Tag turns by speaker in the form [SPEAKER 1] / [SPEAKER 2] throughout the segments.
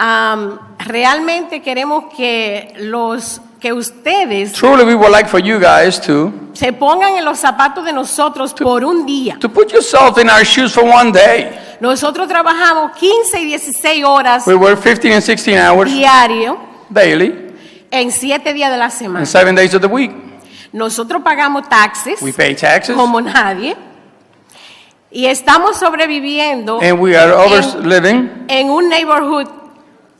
[SPEAKER 1] Am, realmente queremos que los que ustedes
[SPEAKER 2] Truly, we would like for you guys to,
[SPEAKER 1] se pongan en los zapatos de nosotros por un día.
[SPEAKER 2] to put yourself in our shoes for one day.
[SPEAKER 1] Nosotros trabajamos 15 y 16 horas
[SPEAKER 2] We work 15 and 16 hours
[SPEAKER 1] diario
[SPEAKER 2] daily
[SPEAKER 1] en 7 días de la
[SPEAKER 2] and
[SPEAKER 1] semana.
[SPEAKER 2] seven days of the week.
[SPEAKER 1] Nosotros pagamos taxes
[SPEAKER 2] We pay taxes
[SPEAKER 1] como nadie y estamos sobreviviendo
[SPEAKER 2] and we are over
[SPEAKER 1] en,
[SPEAKER 2] living
[SPEAKER 1] en un neighborhood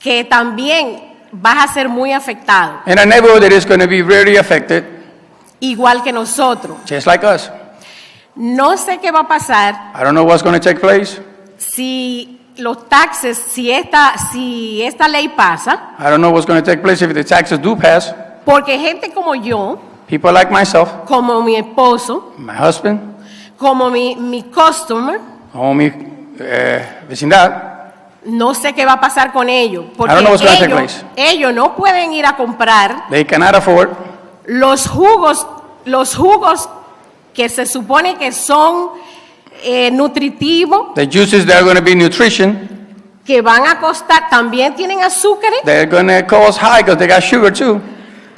[SPEAKER 1] que también vas a ser muy afectado,
[SPEAKER 2] in a neighborhood that is going to be really affected,
[SPEAKER 1] igual que nosotros.
[SPEAKER 2] just like us.
[SPEAKER 1] No sé qué va a pasar
[SPEAKER 2] I don't know what's going to take place.
[SPEAKER 1] si los taxes, si esta, si esta ley pasa,
[SPEAKER 2] I don't know what's going to take place if the taxes do pass.
[SPEAKER 1] porque gente como yo,
[SPEAKER 2] People like myself,
[SPEAKER 1] como mi esposo,
[SPEAKER 2] my husband,
[SPEAKER 1] como mi, mi customer,
[SPEAKER 2] homie, uh, vecindad,
[SPEAKER 1] no sé qué va a pasar con ellos, porque
[SPEAKER 2] I don't know what's gonna take
[SPEAKER 1] ellos,
[SPEAKER 2] place.
[SPEAKER 1] ellos no pueden ir a comprar
[SPEAKER 2] they cannot afford
[SPEAKER 1] los jugos, los jugos que se supone que son eh, nutritivos,
[SPEAKER 2] the juices that are going to be nutrition.
[SPEAKER 1] que van a costar, también tienen azúcares,
[SPEAKER 2] They're going to cost high because they got sugar too.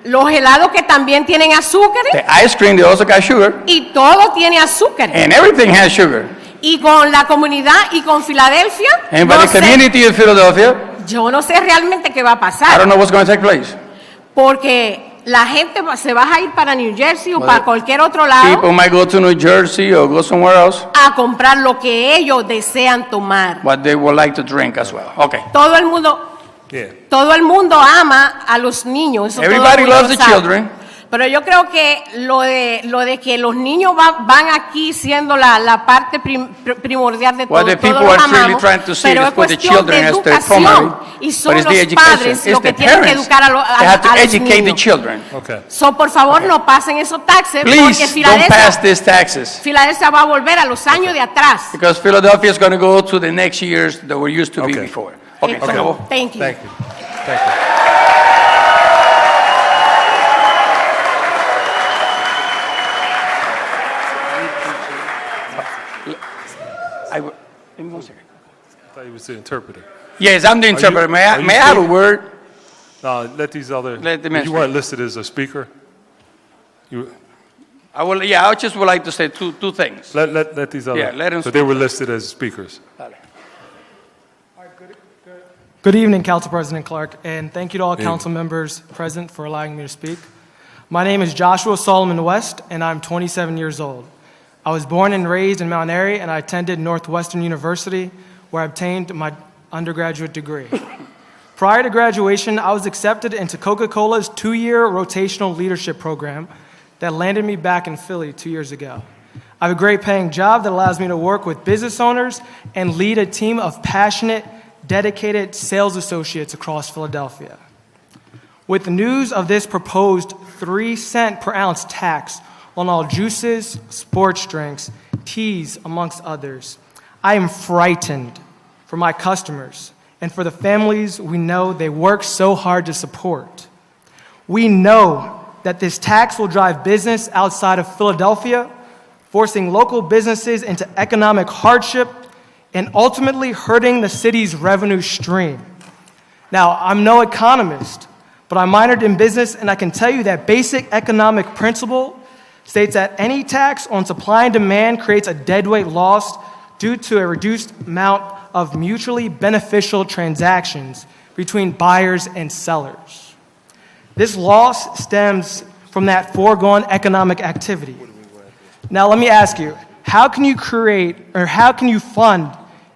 [SPEAKER 1] los helados que también tienen azúcares,
[SPEAKER 2] The ice cream, they also got sugar.
[SPEAKER 1] y todo tiene azúcares.
[SPEAKER 2] And everything has sugar.
[SPEAKER 1] y con la comunidad y con Filadelfia.
[SPEAKER 2] And
[SPEAKER 1] no
[SPEAKER 2] by the
[SPEAKER 1] sé-
[SPEAKER 2] community of Philadelphia,
[SPEAKER 1] yo no sé realmente qué va a
[SPEAKER 2] I
[SPEAKER 1] pasar,
[SPEAKER 2] don't know what's going to take place.
[SPEAKER 1] porque la gente va- se va a ir para New Jersey o
[SPEAKER 2] Well,
[SPEAKER 1] para cualquier otro lado
[SPEAKER 2] People might go to New Jersey or go somewhere else,
[SPEAKER 1] a comprar lo que ellos desean tomar.
[SPEAKER 2] but they would like to drink as well. Okay.
[SPEAKER 1] Todo el mundo, todo el mundo ama a los niños. eso todo el
[SPEAKER 2] Everybody
[SPEAKER 1] mundo
[SPEAKER 2] loves
[SPEAKER 1] lo
[SPEAKER 2] the
[SPEAKER 1] sabe.
[SPEAKER 2] children.
[SPEAKER 1] Pero yo creo que lo de, lo de que los niños va- van aquí siendo la, la parte prim- pr- primordial de todo,
[SPEAKER 2] What the
[SPEAKER 1] todos
[SPEAKER 2] people
[SPEAKER 1] los
[SPEAKER 2] are really
[SPEAKER 1] amamos,
[SPEAKER 2] trying to see
[SPEAKER 1] pero
[SPEAKER 2] is
[SPEAKER 1] es
[SPEAKER 2] put the
[SPEAKER 1] cuestión de
[SPEAKER 2] children as their
[SPEAKER 1] educación
[SPEAKER 2] primary,
[SPEAKER 1] y
[SPEAKER 2] but
[SPEAKER 1] son
[SPEAKER 2] it's
[SPEAKER 1] los
[SPEAKER 2] the education.
[SPEAKER 1] padres
[SPEAKER 2] It's
[SPEAKER 1] los que
[SPEAKER 2] the
[SPEAKER 1] tienen que
[SPEAKER 2] parents.
[SPEAKER 1] educar a, lo- a-
[SPEAKER 2] They have to
[SPEAKER 1] a los
[SPEAKER 2] educate the
[SPEAKER 1] niños.
[SPEAKER 2] children.
[SPEAKER 3] Okay.
[SPEAKER 1] So, por favor, no pasen esos taxes porque
[SPEAKER 2] Please don't pass
[SPEAKER 1] Filadelfia,
[SPEAKER 2] these taxes
[SPEAKER 1] Filadelfia va a volver a los años de atrás.
[SPEAKER 2] because Philadelphia is going to go to the next years that were used to be
[SPEAKER 3] Okay.
[SPEAKER 2] before. Okay.
[SPEAKER 1] Entonces,
[SPEAKER 2] acabó.
[SPEAKER 1] Eh, Thank you.
[SPEAKER 3] Thank you. Thank you.
[SPEAKER 2] I w- give me one second.
[SPEAKER 3] I thought you was the interpreter.
[SPEAKER 2] Yes, I'm the interpreter. May
[SPEAKER 3] are
[SPEAKER 2] I,
[SPEAKER 3] you
[SPEAKER 2] may I have a
[SPEAKER 3] speaking?
[SPEAKER 2] word?
[SPEAKER 3] No, let these other.
[SPEAKER 2] Let them
[SPEAKER 3] you
[SPEAKER 2] answer.
[SPEAKER 3] weren't listed as a speaker. You
[SPEAKER 2] I will, yeah, I just would like to say two, two things.
[SPEAKER 3] let let, let these other.
[SPEAKER 2] Yeah, let 'em
[SPEAKER 3] But they were listed as speakers.
[SPEAKER 4] Good evening, Council President Clark, and thank you to all
[SPEAKER 3] Evening.
[SPEAKER 4] council members present for allowing me to speak. My name is Joshua Solomon West, and I'm 27 years old. I was born and raised in Mount Airy, and I attended Northwestern University, where I obtained my undergraduate degree. Prior to graduation, I was accepted into Coca Cola's two year rotational leadership program that landed me back in Philly two years ago. I have a great paying job that allows me to work with business owners and lead a team of passionate, dedicated sales associates across Philadelphia. With the news of this proposed three cent per ounce tax on all juices, sports drinks, teas, amongst others, I am frightened for my customers and for the families we know they work so hard to support. We know that this tax will drive business outside of Philadelphia, forcing local businesses into economic hardship and ultimately hurting the city's revenue stream. Now, I'm no economist, but I minored in business, and I can tell you that basic economic principle states that any tax on supply and demand creates a deadweight loss due to a reduced amount of mutually beneficial transactions between buyers and sellers. This loss stems from that foregone economic activity. Now, let me ask you how can you create or how can you fund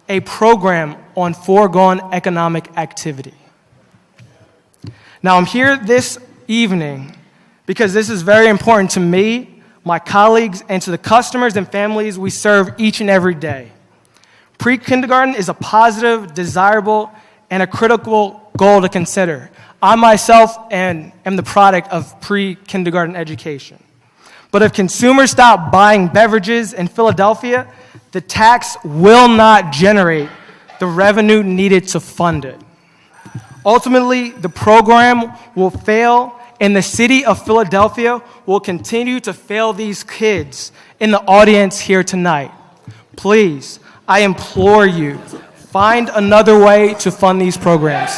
[SPEAKER 4] a program on foregone economic activity? Now, I'm here this evening because this is very important to me, my colleagues, and to the customers and families we serve each and every day. Pre kindergarten is a positive, desirable, and a critical goal to consider. I myself am, am the product of pre kindergarten education. But if consumers stop buying beverages in Philadelphia, the tax will not generate the revenue needed to fund it. Ultimately, the program will fail, and the city of Philadelphia will continue to fail these kids in the audience here tonight. Please, I implore you, find another way to fund these programs.